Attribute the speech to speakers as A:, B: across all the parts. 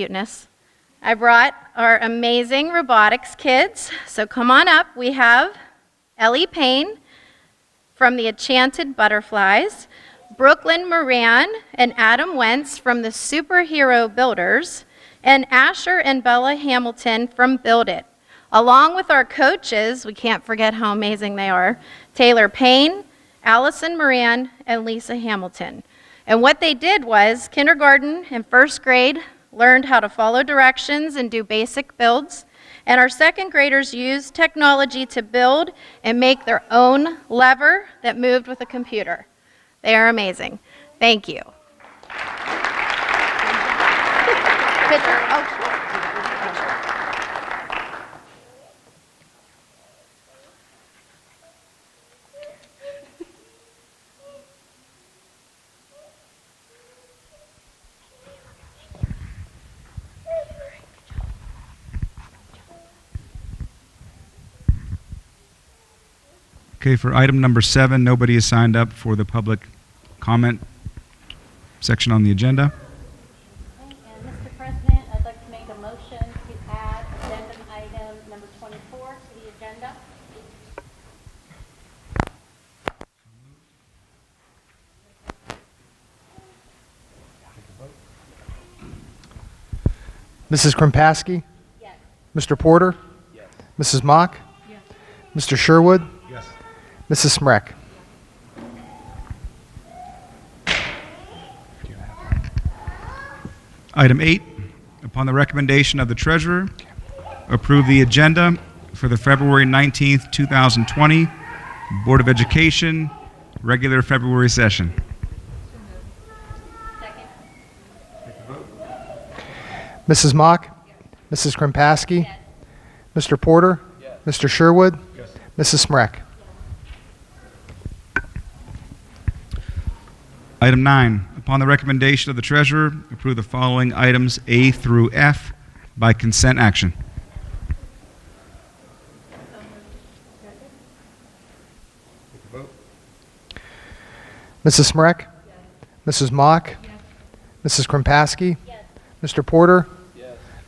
A: cuteness. I brought our amazing robotics kids. So come on up. We have Ellie Payne from the Enchanted Butterflies, Brooklyn Moran and Adam Wentz from the Superhero Builders, and Asher and Bella Hamilton from Build It. Along with our coaches, we can't forget how amazing they are Taylor Payne, Allison Moran, and Lisa Hamilton. And what they did was kindergarten and first grade learned how to follow directions and do basic builds. And our second graders used technology to build and make their own lever that moved with a computer. They are amazing. Thank you. Picture? Oh, sure.
B: Okay, for item number seven, nobody has signed up for the public comment section on the agenda.
C: And Mr. President, I'd like to make a motion to add addendum item number 24 to the agenda.
D: Mrs. Krimpaski?
C: Yes.
D: Mr. Porter? Mrs. Mock? Mr. Sherwood?
B: Yes.
D: Mrs. Smrek?
B: Item eight, upon the recommendation of the treasurer, approve the agenda for the February 19th, 2020 Board of Education regular February session.
C: Second?
D: Mrs. Mock? Mrs. Krimpaski? Mr. Porter? Mr. Sherwood? Mrs. Smrek?
B: Item nine, upon the recommendation of the treasurer, approve the following items A through F by consent action.
D: Mrs. Smrek? Mrs. Mock? Mrs. Krimpaski? Mr. Porter?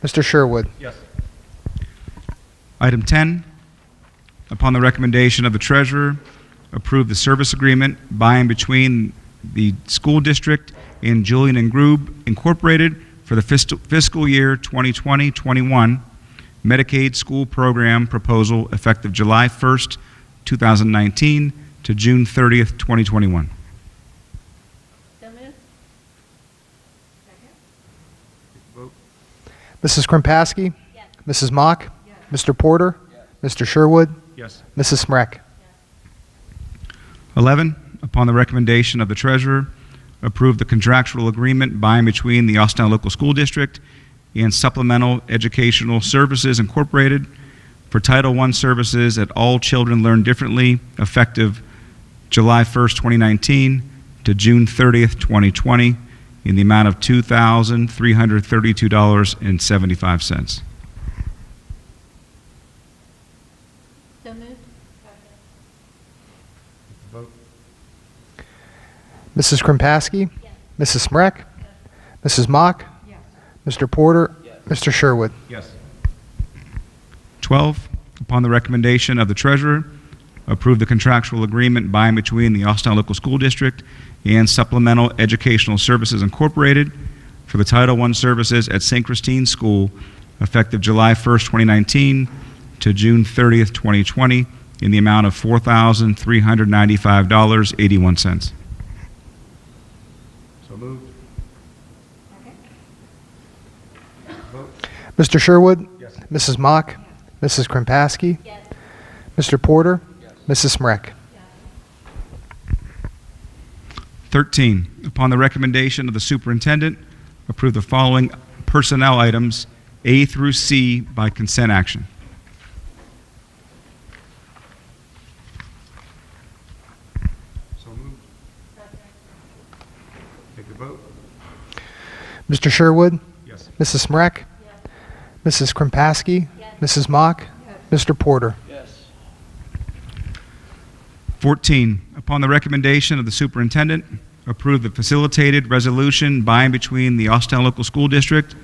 D: Mr. Sherwood?
B: Item 10, upon the recommendation of the treasurer, approve the service agreement by and between the school district and Julian and Grube Incorporated for the fiscal fiscal year 2020-21 Medicaid school program proposal effective July 1st, 2019 to June 30th, 2021.
C: So moved?
D: Mrs. Krimpaski?
C: Yes.
D: Mrs. Mock? Mr. Porter? Mr. Sherwood?
B: Yes.
D: Mrs. Smrek?
B: 11, upon the recommendation of the treasurer, approve the contractual agreement by and between the Austintown Local School District and Supplemental Educational Services Incorporated for Title I services that all children learn differently, effective July 1st, 2019 to June 30th, 2020, in the amount of $2,332.75.
C: So moved?
D: Mrs. Krimpaski?
C: Yes.
D: Mrs. Smrek? Mrs. Mock? Mr. Porter? Mr. Sherwood?
B: Yes. 12, upon the recommendation of the treasurer, approve the contractual agreement by and between the Austintown Local School District and Supplemental Educational Services Incorporated for the Title I services at St. Christine School effective July 1st, 2019 to June 30th, 2020, in the amount of $4,395.81.
D: Mr. Sherwood?
B: Yes.
D: Mrs. Mock? Mrs. Krimpaski?
C: Yes.
D: Mr. Porter? Mrs. Smrek?
B: 13, upon the recommendation of the superintendent, approve the following personnel items, A through C, by consent action. So moved. Take the vote.
D: Mr. Sherwood?
B: Yes.
D: Mrs. Smrek? Mrs. Krimpaski? Mrs. Mock? Mr. Porter?
B: 14, upon the recommendation of the superintendent, approve the facilitated resolution by and between the Austintown Local School District